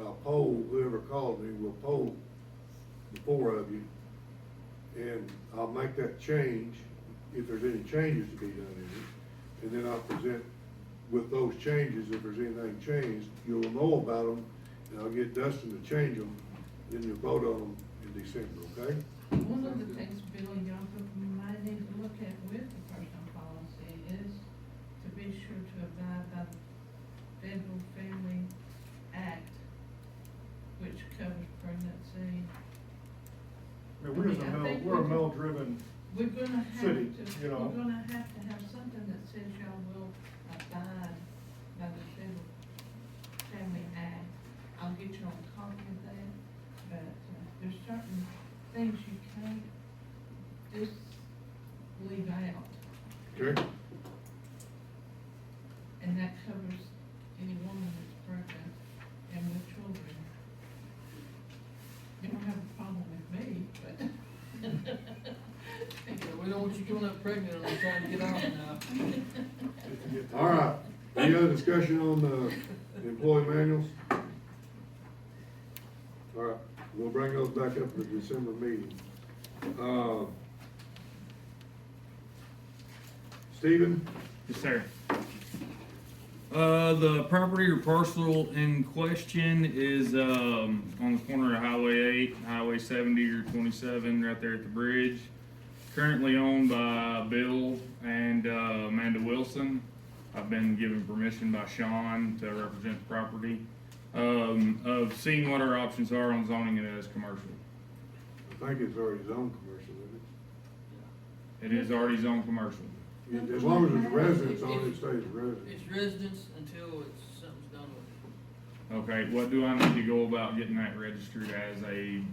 I'll poll, whoever called me will poll the four of you. And I'll make that change, if there's any changes to be done in it. And then I'll present with those changes, if there's anything changed, you'll know about them. And I'll get Dustin to change them, then you'll vote on them in December, okay? One of the things, Billy, y'all might need to look at with the personal policy is to be sure to abide by the Federal Family Act, which covers pregnancy. I mean, we're just a I mean, I male, think we're a we- male-driven, We're gonna have City, to, you we're know. gonna have to have something that says y'all will abide by the Federal Family Act. I'll get you a copy of that, but uh, there's certain things you can't just leave out. Okay? And that covers any woman that's pregnant and with children. You don't have a problem with me, but. we don't want you coming up pregnant and trying to get out now. just to get. All right, any other discussion on the employee manuals? All right, we'll bring those back up at the December meeting. Uh, Stephen, Yes, sir. Uh, the property or parcel in question is, um, on the corner of Highway eight, Highway seventy or twenty-seven, right there at the bridge. Currently owned by Bill and, uh, Amanda Wilson. I've been given permission by Sean to represent the property, um, of seeing what our options are on zoning it as commercial. I think it's already zoned commercial, isn't It is already zoned commercial. it? As long as it's residence, on it stays residence. It's residence until it's, something's done with Okay, what do I need to go about getting that registered as a It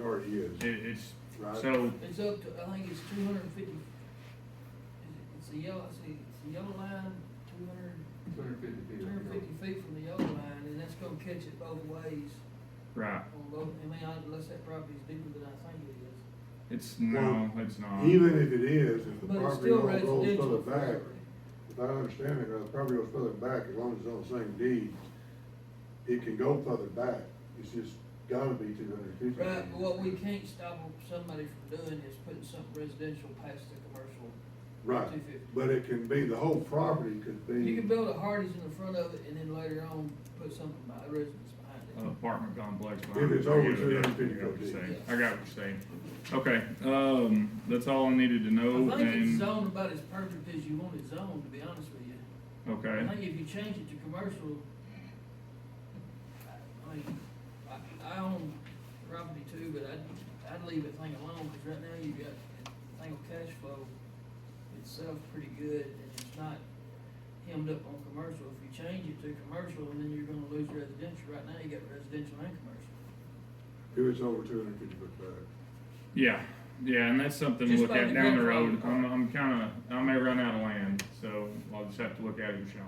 already is. It, it's, Right. so, it. It's up to, I think it's two hundred and fifty, it's a yellow, it's a, it's a yellow line, two hundred, Two hundred fifty two feet. hundred and fifty feet from the yellow line, and that's gonna catch it both ways right, on both, I mean, unless that property's deeper than I think it is. it's, no, it's not. Even if it is, if the But it's property still owner goes further residential back, forever. if I understand it, right, the property goes further back, as long as it's on the same deed, it can go further back, it's just gotta be two hundred fifty. Right, but what we can't stop somebody from doing is putting something residential past the commercial. Right, 250. but it can be, the whole property could be. You can build a Hardee's in the front of it and then later on put something by residence behind it. Apartment complex. If it's over I get it, I 250 got what you're saying. feet. I got what you're saying. Okay, um, that's all I needed to I know think it's Oh, and, zoned about as perfect as you want it zoned, to be honest with you. I okay, think if you change it to commercial, I- I mean, I, I own property too, but I'd, I'd leave it thing alone, cause right now you've got, that thing of cash flow itself pretty good, and it's not hemmed up on commercial. If you change it to commercial, and then you're gonna lose residential, right now you got residential and commercial. If it's over two hundred fifty foot back. yeah, yeah, and that's something to Just look by at the down the grandfather road. I'm, part. I'm kinda, I may run out of land, so I'll just have to look at it, Sean.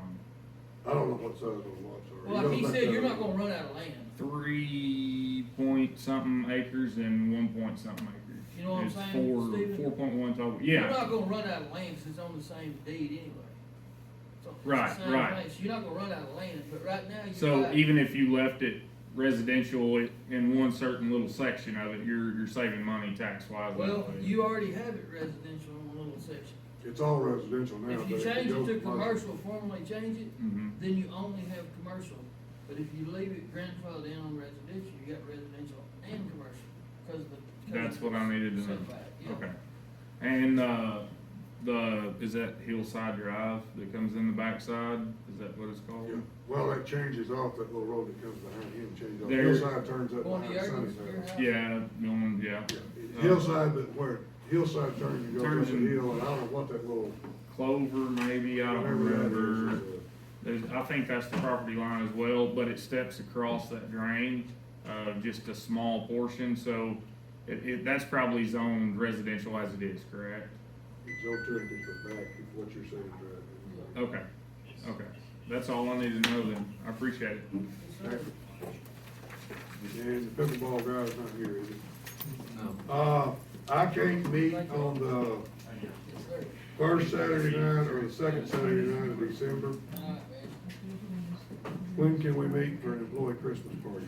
I don't know what size those lots are. You Well, like he don't think said, that- you're not gonna run out of land, Three point something acres and one point something acres. You know what I'm It's saying, Stephen? Four, four point one total, You're yeah, not gonna run out of land, 'cause it's on the same deed anyway. It's on- it's the Right, same right. place. You're not gonna run out of land, but right now, you're. So right. even if you left it residential i- in one certain little section of it, you're, you're saving money tax wise. Well, you already have it residential in one little section. It's all residential now, If but you if it change it goes to commercial, commercial, formally change it, hmm then you only have commercial. But if you leave it grandfathered in on residential, you got residential and commercial, cause of the. 'cause of That's the what I needed to know. setback, yeah. Okay. And, uh, the, is that Hillside Drive that comes in the backside? Is that what it's called? yeah. Well, that changes off that little road that comes behind him, changes off, There- hillside turns up Going to behind Sunny's Yerkes, house. your house. Yeah, Milman, yeah. Yeah, Hillside, but where, hillside turns, you go up Turns the and- hill, and I don't know what that little. Uh, Clover, maybe, I don't whatever that is, remember. is, uh, There's, I think that's the property line as well, but it steps across that drain, uh, just a small portion, so it, it, that's probably zoned residential as it is, correct? It's over two hundred fifty foot back, if what you're saying, is right. Okay, okay, that's all I need to know then, I appreciate it. Yes, sir. Oh. And the pickleball guy's not here, is he? No. Uh, I can't meet on the Yes, sir. first Saturday night or the second Saturday night of December. All right, man. If you're doing this, When can we meet for an employee Christmas party?